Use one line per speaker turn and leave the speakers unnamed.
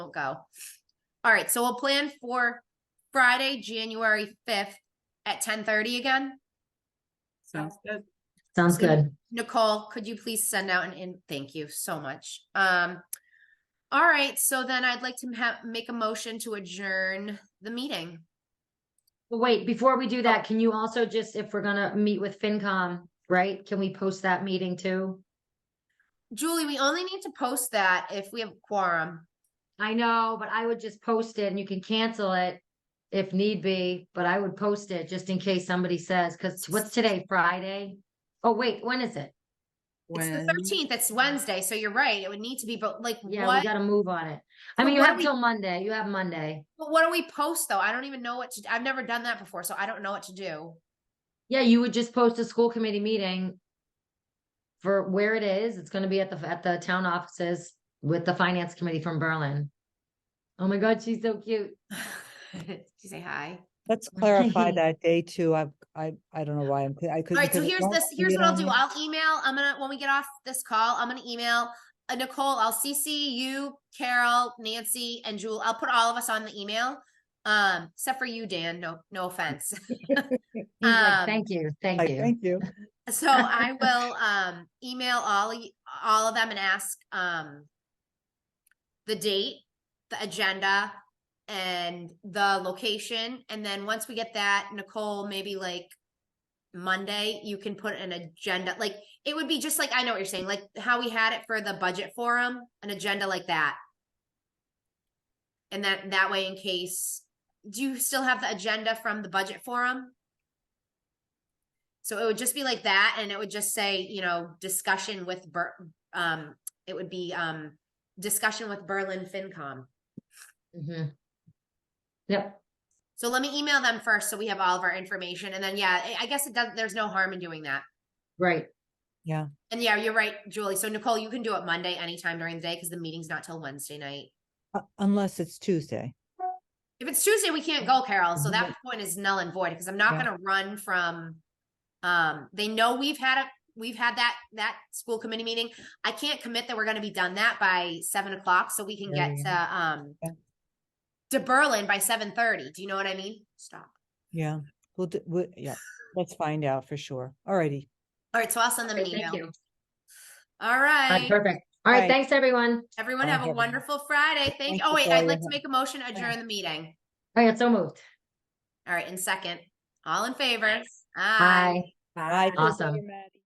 won't go. All right, so we'll plan for Friday, January fifth at ten thirty again.
Sounds good.
Sounds good.
Nicole, could you please send out an in? Thank you so much. Um, all right, so then I'd like to have make a motion to adjourn the meeting.
But Wait, before we do that, can you also just, if we're gonna meet with FinCom, right? Can we post that meeting too?
Julie, we only need to post that if we have quorum.
I know, but I would just post it and you can cancel it if need be, but I would post it just in case somebody says, because what's today, Friday? Oh, wait, when is it?
It's the
When-
thirteenth, it's Wednesday, so you're right. It would need to be, but like,
Yeah, we
what,
gotta move on it. I
So
mean, you
what do
have
we-
till Monday, you have Monday.
but what do we post though? I don't even know what to, I've never done that before, so I don't know what to do.
Yeah, you would just post a school committee meeting for where it is. It's gonna be at the, at the town offices with the finance committee from Berlin. Oh my God, she's so cute.
Did you say hi?
Let's clarify that day too. I, I, I don't know why I'm, I
All
couldn't.
right, so
because it
here's
won't
this,
see
here's
it
what I'll
on
do.
the-
I'll email, I'm gonna, when we get off this call, I'm gonna email uh, Nicole, I'll CC you, Carol, Nancy, and Jewel. I'll put all of us on the email. Um, except for you, Dan, no, no offense.
He's like,
Um,
thank you, thank
Like,
you.
Thank you.
So I will um email all y- all of them and ask um the date, the agenda, and the location. And then once we get that, Nicole, maybe like Monday, you can put an agenda. Like it would be just like I know what you're saying, like how we had it for the budget forum, an agenda like that. And that that way, in case, do you still have the agenda from the budget forum? So it would just be like that, and it would just say, you know, discussion with Ber- um, it would be um, discussion with Berlin FinCom.
Mhm. Yep,
So let me email them first, so we have all of our information, and then yeah, I- I guess it does. There's no harm in doing that.
right.
And yeah, you're right, Julie. So Nicole, you can do it Monday anytime during the day because the meeting's not till Wednesday night.
Uh, Unless it's Tuesday.
If it's Tuesday, we can't go, Carol. So that
Mhm.
point is null and void because I'm not
Yeah.
gonna run from. Um, they know we've had a, we've had that, that school committee meeting. I can't commit that we're gonna be done that by seven o'clock, so we can
Yeah,
get
yeah,
to, um.
Yeah.
To Berlin by seven thirty. Do you know what I mean? Stop.
Yeah. We'll, d- we, yeah, let's find out for sure. Alrighty.
All right, so I'll send them an
Great,
email.
Thank you.
All
All right,
right,
perfect. All right,
Right.
thanks, everyone.
everyone
All
have a
right.
wonderful Friday. Thank,
Thank
oh
you
wait,
for
I'd
your
like to
help.
make a motion to adjourn the meeting.
I got so moved.
All right, in second, all in favor?
Bye.
Bye.
Awesome.